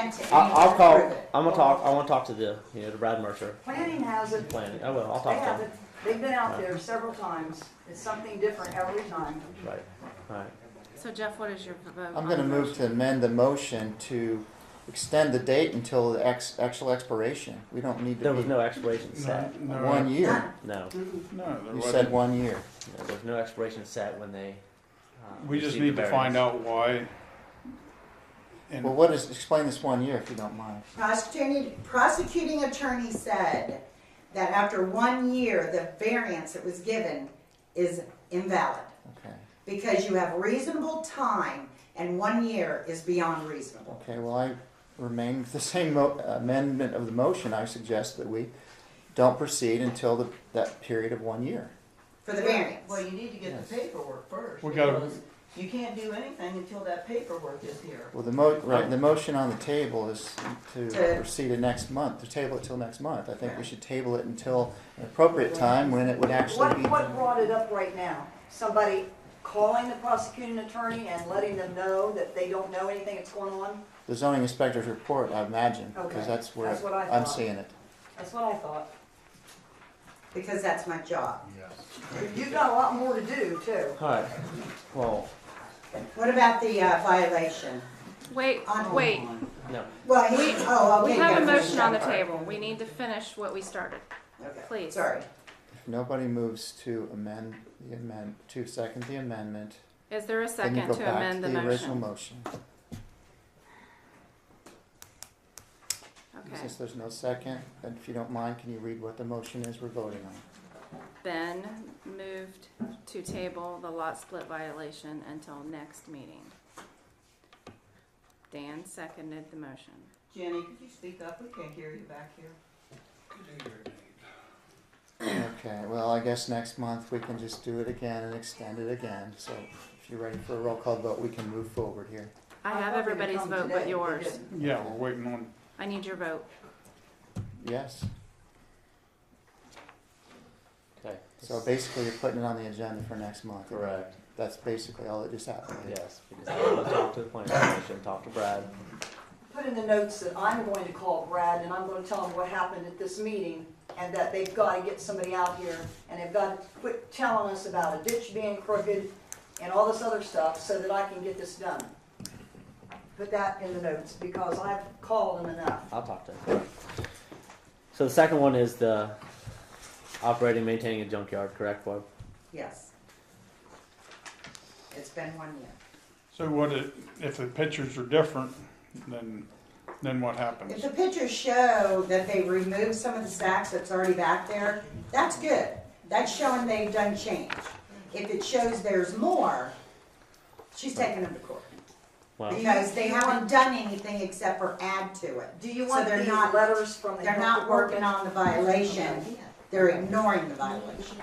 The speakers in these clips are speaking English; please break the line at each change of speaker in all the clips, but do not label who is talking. to
I'll,
anyone
I'll call,
approve it.
I'm gonna talk, I wanna talk to the, you know, to Brad Mercer,
Planning has it,
planning, I will, I'll
they
talk
have
to
it,
him.
they've been out there several times, it's something different every time.
Right, right.
So Jeff, what is your vote?
I'm going to move to amend the motion to extend the date until the ex, actual expiration. We don't need to
There was
be
no expiration set,
No, no,
one year.
no,
No, there
You said
wasn't.
one year.
no, there was no expiration set when they. uh,
We just
received
need
the
to find
variance.
out why. And
Well, what is, explain this one year if you don't mind.
Prosecuting, prosecuting attorney said that after one year, the variance that was given is invalid
Okay.
because you have reasonable time and one year is beyond reasonable.
Okay, well, I remain with the same mo- amendment of the motion. I suggest that we don't proceed until the, that period of one year.
For the variance.
Well, you need to get the
Yes.
paperwork first.
We gotta-
because You can't do anything until that paperwork is here.
Well, the mo, right, the motion on the table is to
To-
proceed to next month, to table it till next month. I think we should table it until an appropriate time when it would actually
What,
be.
what brought it up right now? Somebody calling the prosecuting attorney and letting them know that they don't know anything that's going on?
The zoning inspector's report, I imagine,
Okay,
because that's where
that's what I
I'm
thought.
seeing it.
That's what I thought.
Because that's my job.
You've got a lot more to do too.
Alright, well,
What about the uh, violation?
Wait,
On-
wait.
no,
Well, he, oh,
We
okay.
have
yeah,
a motion on the
sorry.
table. We need to finish what we started.
Okay,
Please.
Sorry.
If nobody moves to amend the amend, to second the amendment,
Is there
then
a
you
second
go back
to
to
amend the
the original
motion?
motion.
Okay,
Since there's no second, then if you don't mind, can you read what the motion is we're voting on?
then moved to table the lot split violation until next meeting. Dan seconded the motion.
Jenny, could you speak up? We can't hear you back here.
Okay, well, I guess next month we can just do it again and extend it again. So if you're ready for a roll call vote, we can move forward here.
I
I
have
thought they would
everybody's
come
vote
today,
but
they
yours.
didn't.
yeah, we're waiting on.
I need your vote.
Yes,
okay.
so basically you're putting it on the agenda for next month.
Correct,
That's basically all that just happened.
yes, because I wanna talk to the planning commission, talk to Brad,
Put in the notes that I'm going to call Brad and I'm going to tell him what happened at this meeting and that they've got to get somebody out here and they've got to quit telling us about a ditch being crooked and all this other stuff so that I can get this done. Put that in the notes because I've called him enough.
I'll talk to him. So the second one is the operating, maintaining a junkyard, correct, Bob?
Yes. It's been one year.
So what it, if the pictures are different, then then what happens?
If the pictures show that they removed some of the stacks that's already back there, that's good. That's showing they've done change. If it shows there's more, she's taking them to court.
Well,
Because they haven't done anything except for add to it.
Do you
So
want
they're
these
not-
letters from the
They're
health
not working
department?
on the violation, they're ignoring the violation.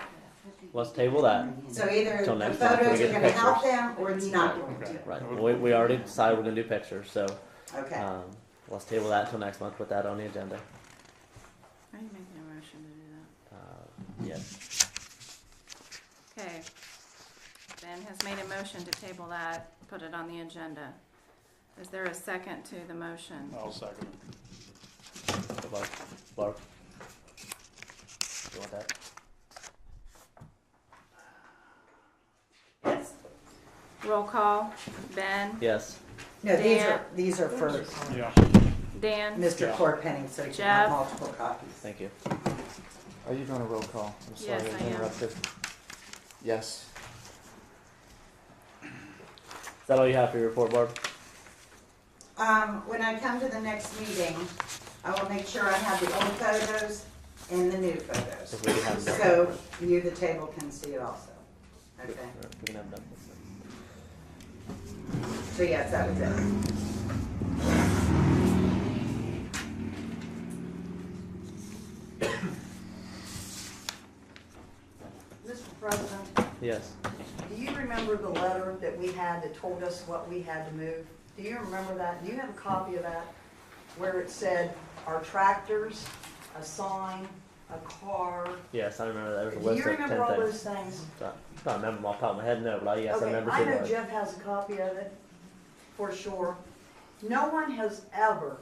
let's table that,
So either
Till
the
next time, till we
photos
get
are
the
gonna help
pictures.
them or it's not going to,
right, Well, we, we already decided we're gonna do pictures, so,
okay?
um, let's table that until next month, put that on the agenda.
Are you making a motion to
Uh,
do that?
yes,
Okay. Ben has made a motion to table that, put it on the agenda. Is there a second to the motion?
I'll second
Barb, Barb. You want that?
Yes. Roll call, Ben,
Yes.
No, these
Dan-
are, these are for
it. Yeah.
Dan,
Mr.
Yeah.
Corpenning, so you can have
Jeff.
multiple copies.
Thank you.
Are you doing a roll call? I'm sorry,
Yes, I
I
am.
interrupted. Yes.
Is that all you have for your report, Barb?
Um, when I come to the next meeting, I will make sure I have the old photos and the new photos.
If we can have them.
So you, the table, can see it also. Okay,
Or if we can have them.
so yes, that was it.
Mr. President,
Yes.
do you remember the letter that we had that told us what we had to move? Do you remember that? Do you have a copy of that? Where it said our tractors, a sign, a car?
Yes, I remember that. There was a
Do you
list of ten
remember all
things.
those things?
Can't remember them off the top of my head, no, but I, yes, I
Okay,
remember
I
seeing
know
those.
Jeff has a copy of it, for sure. No one has ever